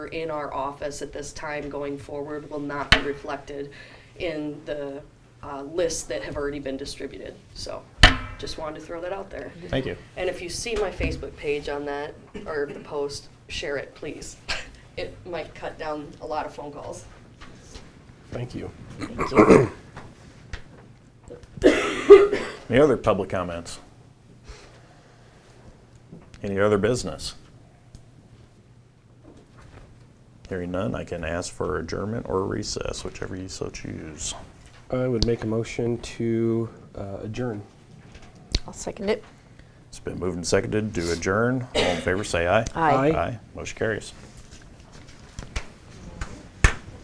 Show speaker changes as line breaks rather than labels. in our office at this time going forward will not be reflected in the uh, lists that have already been distributed. So just wanted to throw that out there.
Thank you.
And if you see my Facebook page on that, or the post, share it, please. It might cut down a lot of phone calls.
Thank you. Any other public comments? Any other business? Hearing none, I can ask for adjournment or recess, whichever you so choose.
I would make a motion to uh, adjourn.
I'll second it.
It's been moved and seconded to adjourn. All in favor, say aye.
Aye.
Aye.
Aye. Motion carries.